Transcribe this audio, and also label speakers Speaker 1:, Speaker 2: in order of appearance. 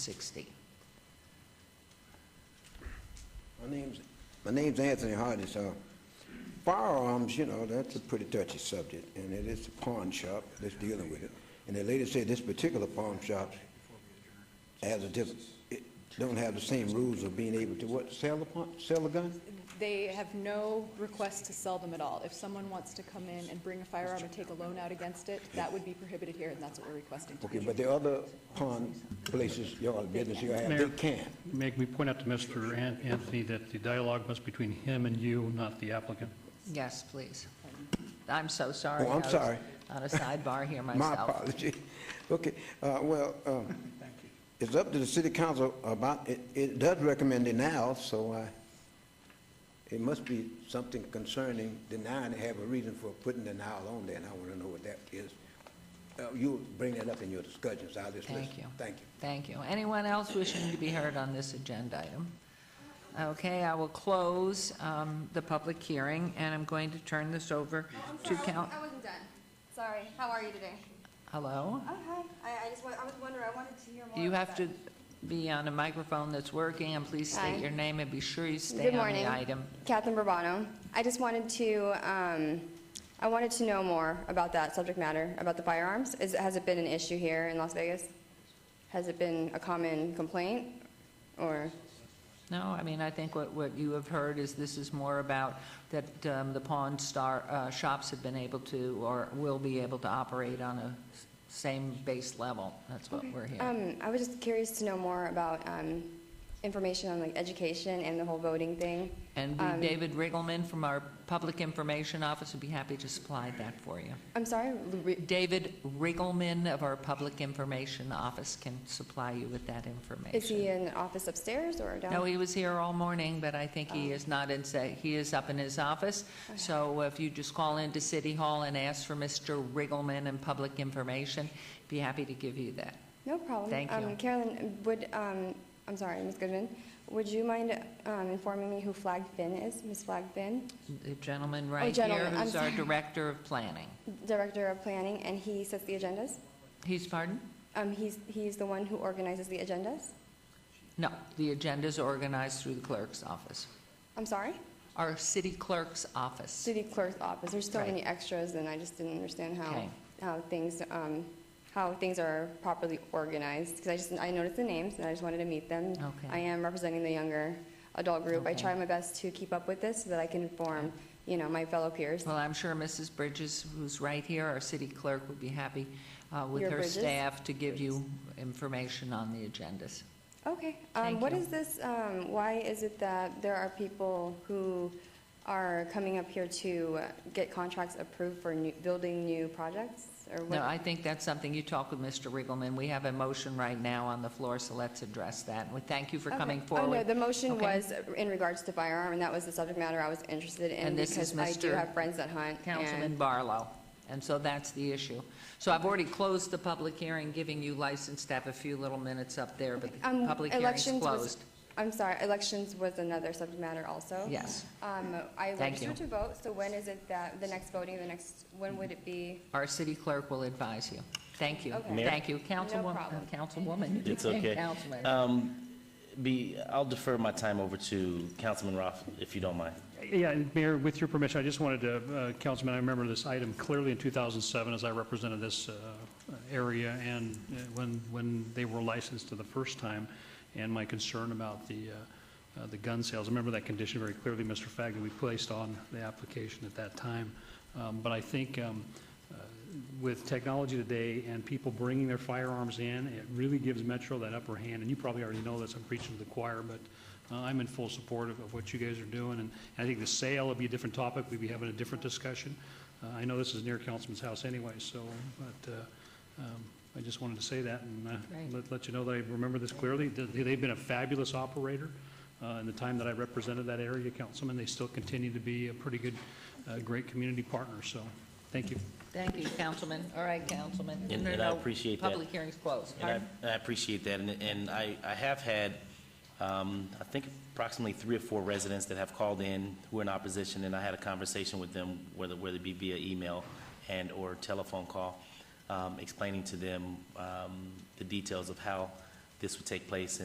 Speaker 1: 60.
Speaker 2: My name's, my name's Anthony Hodges. Uh, Firearms, you know, that's a pretty touchy subject, and it is a pawn shop that's dealing with it. And the lady said this particular pawn shop has a different, it don't have the same rules of being able to what, sell a pawn, sell a gun?
Speaker 3: They have no request to sell them at all. If someone wants to come in and bring a firearm and take a loan out against it, that would be prohibited here, and that's what we're requesting.
Speaker 2: Okay, but the other pawn places, y'all, business you have, they
Speaker 4: Mayor.
Speaker 2: can.
Speaker 4: Make me point out to Mr. An- Anthony that the dialogue must be between him and you, not the applicant.
Speaker 1: Yes, please. I'm so sorry.
Speaker 2: Oh, I'm
Speaker 1: I was
Speaker 2: sorry.
Speaker 1: On a sidebar here
Speaker 2: My
Speaker 1: myself.
Speaker 2: apology. Okay, uh, well, um, it's up to the city council about, it, it does recommend denial, so I, it must be something concerning denying, they have a reason for putting denial on there, and I want to know what that is. Uh, You'll bring that up in your discussions, I'll just listen.
Speaker 1: Thank you.
Speaker 2: Thank you.
Speaker 1: Thank you. Anyone else wishing to be heard on this agenda item? Okay, I will close um, the public hearing, and I'm going to turn this over
Speaker 5: I'm
Speaker 1: to
Speaker 5: sorry, I
Speaker 1: count.
Speaker 5: wasn't- I wasn't done. Sorry, how are you today?
Speaker 1: Hello?
Speaker 5: Oh, hi. I, I just, wa- I was wondering, I wanted to hear more.
Speaker 1: You
Speaker 5: about
Speaker 1: have to
Speaker 5: that.
Speaker 1: be on a microphone that's working, and please
Speaker 5: Hi.
Speaker 1: state your name and be sure you stay
Speaker 5: Good
Speaker 1: on
Speaker 5: morning.
Speaker 1: the item.
Speaker 5: Catherine Bourbon. I just wanted to, um, I wanted to know more about that subject matter, about the firearms. Is, has it been an issue here in Las Vegas? Has it been a common complaint, or?
Speaker 1: No, I mean, I think what, what you have heard is this is more about that um, the pawn star, uh, shops have been able to, or will be able to operate on a s- same base level. That's what we're hearing.
Speaker 5: Um, I was just curious to know more about, um, information on like education and the whole voting thing.
Speaker 1: And we-
Speaker 5: um,
Speaker 1: David Riggleman from our Public Information Office would be happy to supply that for you.
Speaker 5: I'm sorry, re-
Speaker 1: David Riggleman of our Public Information Office can supply you with that
Speaker 5: is he
Speaker 1: information.
Speaker 5: in the office upstairs or down?
Speaker 1: No, he was here all morning, but I think
Speaker 5: Oh.
Speaker 1: he is not in, sa- he is up in his office. So if you just call into City Hall and ask for Mr. Riggleman and Public Information, be happy to give you that.
Speaker 5: No problem.
Speaker 1: Thank
Speaker 5: Um,
Speaker 1: you.
Speaker 5: Carolyn, would, um, I'm sorry, Ms. Goodman, would you mind um, informing me who Flag Finn is? Ms. Flag Finn,
Speaker 1: The gentleman right here
Speaker 5: Oh, gentleman, I'm
Speaker 1: who's our
Speaker 5: sorry.
Speaker 1: Director of Planning.
Speaker 5: Director of Planning, and he sets the agendas?
Speaker 1: He's, pardon?
Speaker 5: Um, He's, he's the one who organizes the agendas?
Speaker 1: No, the agenda's organized through the clerk's office,
Speaker 5: I'm sorry?
Speaker 1: our city clerk's office.
Speaker 5: City Clerk's Office. There's so
Speaker 1: Right.
Speaker 5: many extras, and I just didn't understand how,
Speaker 1: Okay.
Speaker 5: how things, um, how things are properly organized, because I just, I noticed the names, and I just wanted to meet them.
Speaker 1: Okay.
Speaker 5: I am representing the younger adult group. I
Speaker 1: Okay.
Speaker 5: try my best to keep up with this so that I can inform, you know, my fellow peers.
Speaker 1: Well, I'm sure Mrs. Bridges, who's right here, our city clerk, would be happy uh, with
Speaker 5: Your
Speaker 1: her
Speaker 5: Bridges?
Speaker 1: staff to give you information on the agendas.
Speaker 5: Okay,
Speaker 1: Thank
Speaker 5: um, what
Speaker 1: you.
Speaker 5: is this, um, why is it that there are people who are coming up here to uh, get contracts approved for new, building new projects? Or
Speaker 1: No,
Speaker 5: what?
Speaker 1: I think that's something you talk with Mr. Riggleman. We have a motion right now on the floor, so let's address that. And we thank you for
Speaker 5: Okay.
Speaker 1: coming
Speaker 5: Oh, no,
Speaker 1: forward.
Speaker 5: the motion
Speaker 1: Okay.
Speaker 5: was in regards to firearm, and that was the subject matter I was interested in
Speaker 1: And this is
Speaker 5: because I do
Speaker 1: Mr.
Speaker 5: have friends that hunt. and-
Speaker 1: Councilman Barlow. And so that's the issue. So I've already closed the public hearing, giving you license to have a few little minutes up there, but the
Speaker 5: Um,
Speaker 1: public hearing's
Speaker 5: elections was-
Speaker 1: closed.
Speaker 5: I'm sorry, elections was another subject matter also.
Speaker 1: Yes.
Speaker 5: Um, I
Speaker 1: Thank you.
Speaker 5: registered to vote, so when is it that, the next voting, the next, when would it be?
Speaker 1: Our city clerk will advise you. Thank you.
Speaker 5: Okay. Mayor?
Speaker 1: Thank you. Councilwoman, uh,
Speaker 5: problem.
Speaker 1: Councilwoman.
Speaker 6: It's okay.
Speaker 1: Councilman.
Speaker 6: Um, Be, I'll defer my time over to Councilman Roth, if you don't mind.
Speaker 4: Yeah, and Mayor, with your permission, I just wanted to, uh, Councilman, I remember this item clearly in 2007 as I represented this uh, area and uh, when, when they were licensed for the first time and my concern about the, uh, uh, the gun sales. I remember that condition very clearly, Mr. Fagg, that we placed on the application at that time. Um, But I think um, uh, with technology today and people bringing their firearms in, it really gives Metro that upper hand. And you probably already know this, I'm preaching to the choir, but uh, I'm in full support of, of what you guys are doing. And I think the sale would be a different topic, we'd be having a different discussion. Uh, I know this is near Councilman's house anyway, so, but uh, um, I just wanted to say that and uh,
Speaker 1: Right.
Speaker 4: let, let you know that I remember this clearly. They- They've been a fabulous operator uh, in the time that I represented that area, Councilman. They still continue to be a pretty good, uh, great community partner, so thank you.
Speaker 1: Thank you, Councilman. All right, Councilman.
Speaker 6: And-
Speaker 1: No, no,
Speaker 6: and I
Speaker 1: no.
Speaker 6: appreciate that.
Speaker 1: Public hearing's closed.
Speaker 6: And I-
Speaker 1: Pardon?
Speaker 6: and I appreciate that, and and I I have had, um, I think approximately three or four residents that have called in who are in opposition, and I had a conversation with them, whether whether it be via email and/or telephone call, um, explaining to them um, the details of how this would take place